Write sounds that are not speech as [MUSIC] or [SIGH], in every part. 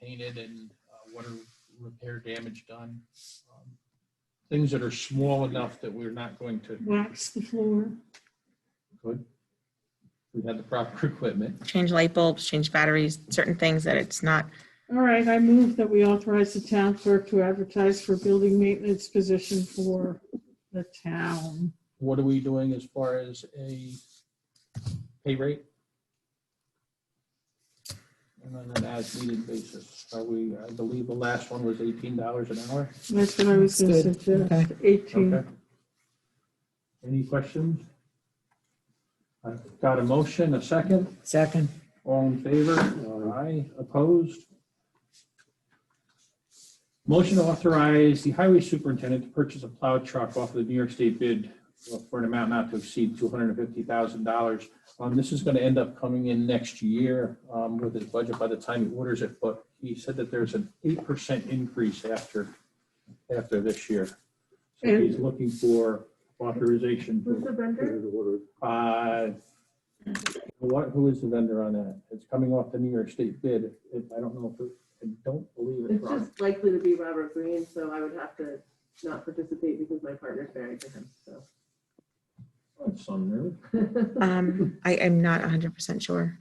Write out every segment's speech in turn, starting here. painted and uh, what are repair damage done. Um, Things that are small enough that we're not going to, wax the floor. could, if we had the proper [LAUGHS] equipment. change light bulbs, change batteries, certain things that it's not. All right, I move that we authorize the town clerk to advertise for building maintenance position for the town. What are we doing as far as a pay rate? And on an as-needed basis, are we, I believe the last one was eighteen dollars an hour. That's what I was going to That's good. suggest, Okay. 18. Okay. Any questions? I've got a motion, a second. Second. All in favor? Aye. Opposed? Motion to authorize the highway superintendent to purchase a plow truck off of the New York State bid for an amount not to exceed $250,000. Um, This is going to end up coming in next year um, with his budget by the time he orders it, but he said that there's an 8% increase after, after this year. So he's looking for authorization. to- uh, What, who is the vendor on that? It's coming off the New York State bid. It- I don't know if, it- I don't believe it's It's Robert. just likely to be Robert Green, so I would have to not participate because my partner's married to him, so. It's on there. Um, I am not 100% sure.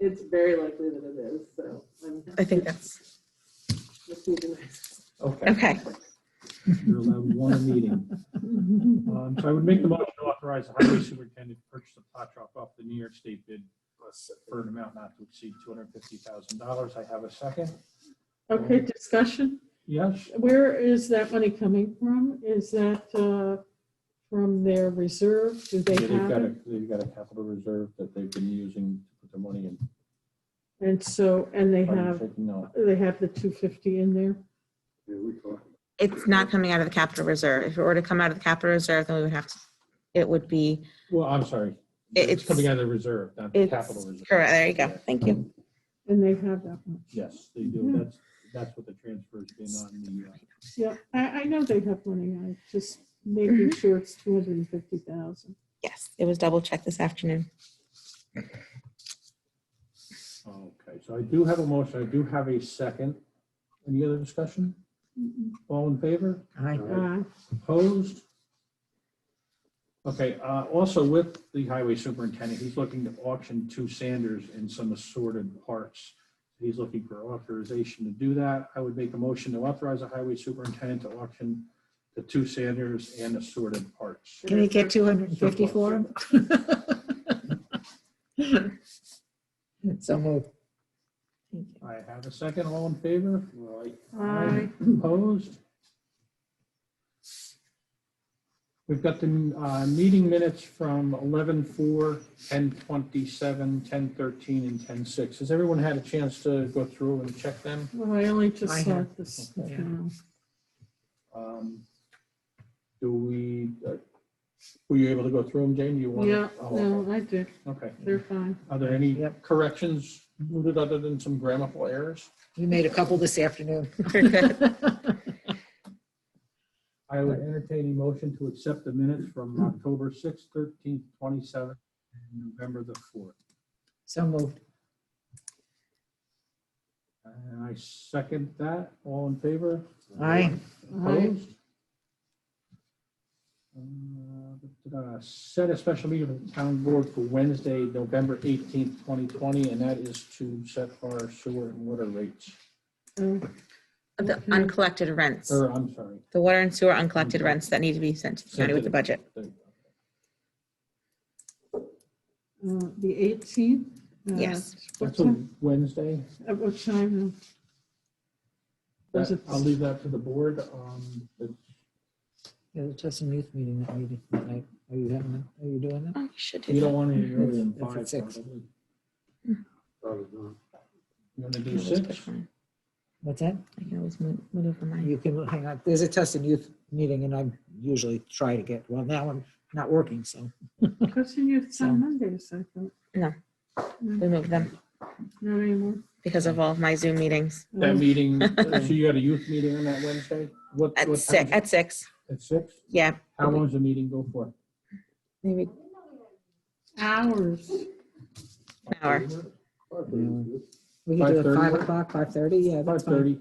It's very likely that it is, so. I'm I think that's mistaken. Okay, okay. [LAUGHS] you're allowed one a meeting. Um, So I would make the motion to authorize the highway superintendent to purchase a pot truck off the New York State bid for an amount not to exceed $250,000. I have a second. Okay, discussion. Yes, Where is that money coming from? Is that uh, from their reserve? Do Yeah, they they've have got a, it? they've got a capital reserve that they've been using to put their money in. And so, and they I'm have, taking note. they have the 250 in there? It's not coming out of the capital reserve. If it were to come out of the capital reserve, then we would have to, it would be, Well, I'm sorry. It- It's it's- coming out of the reserve, not the it's, capital reserve. correct, there you go. Thank you. And they have that one. Yes, they do. Mhm. That's, that's what the transfer's been on the, uh, Yeah, I, I know they have money. I just making Mm-hmm. sure it's 250,000. Yes, it was double checked this afternoon. [LAUGHS] oh, okay, so I do have a motion. I do have a second. Any other discussion? Mm-hmm. All in favor? Aye. Uh, Opposed? Okay, uh, also with the highway superintendent, he's looking to auction two Sanders and some assorted parts. He's looking for authorization to do that. I would make a motion to authorize the highway superintendent to auction the two Sanders and assorted parts. Can we get 250 for him? [LAUGHS] So moved. I have a second. All in favor? Right. I, Opposed? We've got the uh, meeting minutes from 11:04, 10:27, 10:13, and 10:06. Has everyone had a chance to go through and check them? well, I only just I saw have- this okay. now. Um, Do we, uh, were you able to go through them, Jane? Do you want? Yeah, no, I did. Okay. They're fine. Are there any Yep. corrections noted other than some grammatical errors? You made a couple this afternoon. Very good. I would entertain a motion to accept the minutes from October 6th, 13th, 27th, and November the 4th. So moved. And I second that. All in favor? Aye. Aye. Opposed? Uh, da-da-da. Set a special meeting of the town board for Wednesday, November 18th, 2020, and that is to set our sewer and water rates. Oh, The uncollected rents, Or, I'm sorry. the water and sewer uncollected rents that need to be sent to the county with the budget. the- uh, The 18th? Uh, Yes. What That's a time, Wednesday. at what time? Was That- it- I'll leave that to the board. Um, it's It was just a youth meeting that meeting that night. Are you having, that? are you doing that? Oh, you should do You that. don't want any earlier than That's five. at six. probably. Probably not. You want to I do can always six? push mine. What's that? I can always move move mine. You can, hang on. There's a test and youth meeting and I usually try to get, well, now I'm not working, so. Question you, it's on Mondays, I thought. We moved them Not anymore. Um, because of all of my Zoom meetings. That [LAUGHS] meeting, uh, so you had a youth meeting on that Wednesday? What? At what six, time? at six, At six? yeah, How long does the meeting go for? maybe an Hours. hour. Probably not. We could do it 5:30? five o'clock, five thirty, yeah, Five that's fine. thirty.